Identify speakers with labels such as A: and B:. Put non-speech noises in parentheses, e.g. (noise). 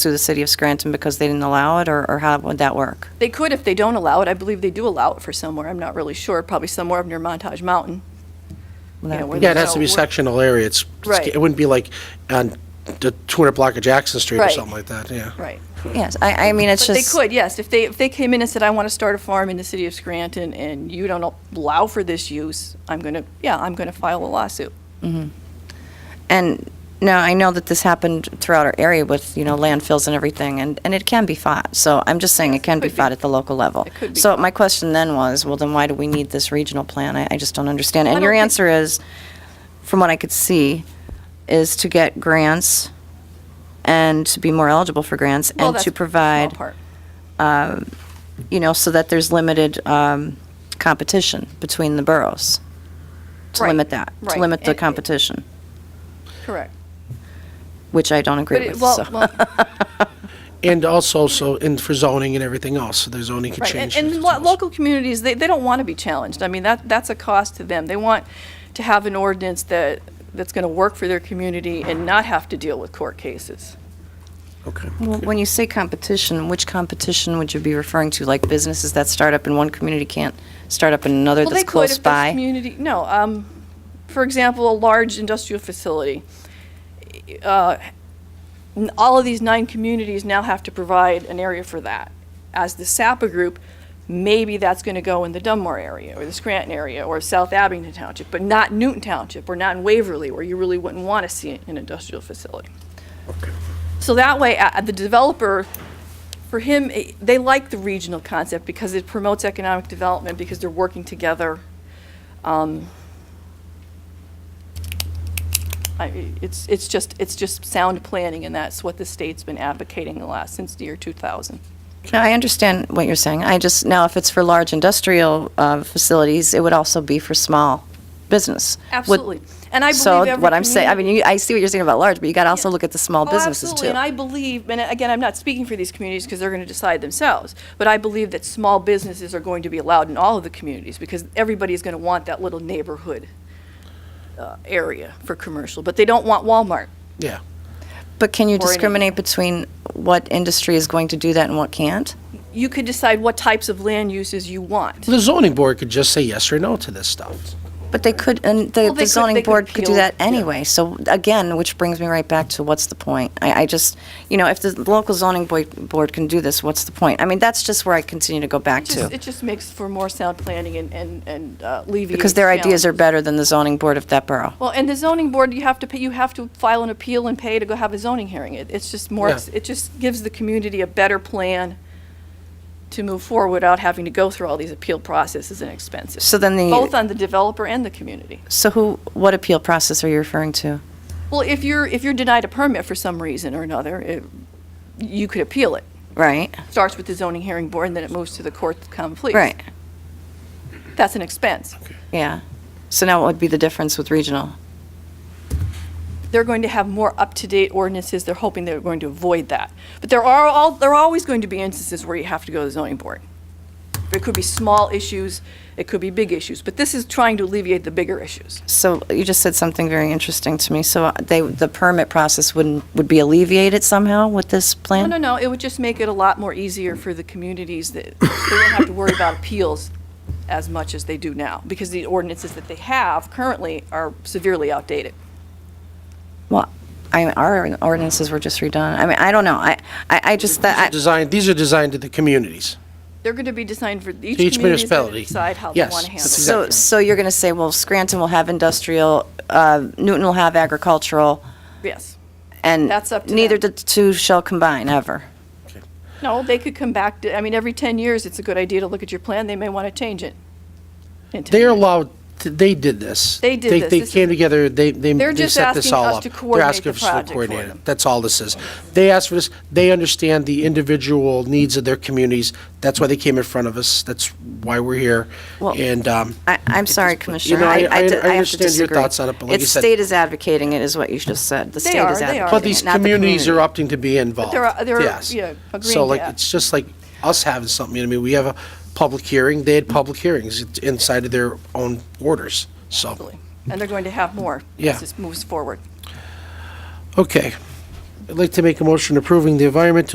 A: sue the city of Scranton because they didn't allow it, or, or how would that work?
B: They could if they don't allow it. I believe they do allow it for somewhere. I'm not really sure. Probably somewhere up near Montage Mountain.
A: Would that
B: Yeah,
A: be-
B: we're
C: Yeah, it has to be
B: So-
C: sectional area. It's,
B: Right.
C: it wouldn't be like on the 200 block of Jackson Street or
B: Right.
C: something like that, yeah.
B: Right.
A: Yes, I, I mean, it's
B: But they
A: just,
B: could, yes. If they, if they came in and said, I want to start a farm in the city of Scranton and you don't allow for this use, I'm going to, yeah, I'm going to file a lawsuit.
A: and now I know that this happened throughout our area with, you know, landfills and everything, and, and it can be fought. So I'm just saying it can be
B: could be.
A: fought at the local level.
B: It could be.
A: So my question then was, well, then why do we need this regional plan? I, I just don't understand. And
B: don't
A: your
B: think-
A: answer is, from what I could see, is to get grants and to be more eligible for grants
B: Well,
A: and
B: that's
A: to
B: a small
A: provide
B: part.
A: you know, so that there's limited um, competition between the boroughs, to
B: Right,
A: limit that, to
B: right.
A: limit the
B: And-
A: competition,
B: Correct.
A: which I don't
B: But
A: agree
B: it,
A: with,
B: well,
A: so. (laughs)
B: well,
C: And also, so, and for zoning and everything else, so the zoning could
B: Right, and,
C: change.
B: and lo- local communities, they, they don't want to be challenged. I mean, that, that's a cost to them. They want to have an ordinance that, that's going to work for their community and not have to deal with court cases.
C: Okay.
A: Well, When you say competition, which competition would you be referring to? Like businesses that start up in one community can't start up in another
B: Well, they
A: that's
B: could
A: close
B: if there's
A: by?
B: community, no, um, for example, a large industrial facility. Uh, n- All of these nine communities now have to provide an area for that. As the SAPA group, maybe that's going to go in the Dunmore area, or the Scranton area, or South Abington Township, but not Newton Township, or not in Waverly, where you really wouldn't want to see an industrial facility. So that way, uh, the developer, for him, eh, they like the regional concept because it promotes economic development because they're working together. Um, I- It's, it's just, it's just sound planning, and that's what the state's been advocating the last, since the year 2000.
A: No, I understand what you're saying. I just, now if it's for large industrial uh, facilities, it would also be for small business. Would-
B: Absolutely. And I believe every
A: So what I'm saying, I mean,
B: community-
A: you- I see what you're saying about large, but you got to also
B: Yeah.
A: look at the small
B: Oh,
A: businesses
B: absolutely.
A: too.
B: And I believe, and again, I'm not speaking for these communities because they're going to decide themselves, but I believe that small businesses are going to be allowed in all of the communities because everybody is going to want that little neighborhood uh, area for commercial, but they don't want Walmart.
C: Yeah.
A: But can you
B: any-
A: discriminate between what industry is going to do that and what can't?
B: You could decide what types of land uses you want.
C: The zoning board could just say yes or no to this stuff.
A: But they could, and the
B: Well,
A: the
B: they could-
A: zoning
B: they could
A: board could do
B: appeal,
A: that
B: yeah.
A: anyway. So again, which brings me right back to what's the point? I, I just, you know, if the local zoning boi- board can do this, what's the point? I mean, that's just where I continue to go back
B: It just,
A: to.
B: it just makes for more sound planning and, and, and uh, alleviates.
A: Because their ideas are
B: challenges.
A: better than the zoning board of that borough.
B: Well, and the zoning board, you have to pay, you have to file an appeal and pay to go have a zoning hearing. It, it's just more,
C: Yeah.
B: it just gives the community a better plan to move forward without having to go through all these appeal processes and expenses.
A: So then the-
B: Both on the developer and the community.
A: So who, what appeal process are you referring to?
B: Well, if you're, if you're denied a permit for some reason or another, it, you could appeal it.
A: Right,
B: Starts with the zoning hearing board and then it moves to the court of common pleas.
A: right,
B: That's an expense.
A: yeah. So now what would be the difference with regional?
B: they're going to have more up-to-date ordinances. They're hoping they're going to avoid that. But there are all, there are always going to be instances where you have to go to the zoning board. It could be small issues, it could be big issues, but this is trying to alleviate the bigger issues.
A: So you just said something very interesting to me. So uh, they, the permit process wouldn't, would be alleviated somehow with this
B: No,
A: plan?
B: no, no, it would just make it a lot more easier for the communities that they don't have to worry about appeals as much as they do now, because the ordinances that they have currently are severely outdated.
A: Well, I, our ordinances were just redone. I mean, I don't know. I, I, I just, that, I-
C: Designed, these are designed to the communities.
B: They're going to be designed for each community
C: Each
B: is going to
C: municipality.
B: decide how they
C: Yes,
B: want to handle
C: that's
B: it.
A: so, so you're going to say, well, Scranton will have industrial, uh, Newton will have agricultural,
B: Yes.
A: and
B: That's up to
A: neither the
B: them.
A: two shall combine ever.
B: No, they could come back to, I mean, every 10 years, it's a good idea to look at your plan. They may want to change it. in 10
C: They're
B: years.
C: allowed, to- they did this.
B: They did this.
C: They
B: This is-
C: came together, they, they
B: They're
C: they
B: just
C: set this
B: asking
C: all
B: us
C: up.
B: to
C: They're
B: coordinate
C: asking
B: the
C: us
B: project
C: to
B: for
C: coordinate
B: them.
C: it. That's all this is. They asked for this, they understand the individual needs of their communities. That's why they came in front of us, that's why we're here.
A: Well,
C: And, um,
A: I, I'm sorry, Commissioner.
C: I- I-
A: di-
C: I
A: have to
C: understand your
A: disagree.
C: thoughts on it, but like you
A: It's
C: said-
A: state is advocating it, is what you just said. The state
B: are,
A: is
B: they
A: advocating
B: are.
C: But
B: But
C: these
A: it, not the
C: communities are
A: community.
C: opting to be involved.
B: they're- they're,
C: Yes.
B: yeah, agreeing
C: So
B: to
C: like,
B: that.
C: it's just like us having something, you know, what I mean, we have a public hearing, they had public hearings It's inside of their own orders, so.
B: Absolutely. And they're going to have more
C: Yeah.
B: as this moves forward.
C: Okay. I'd like to make a motion approving the environmental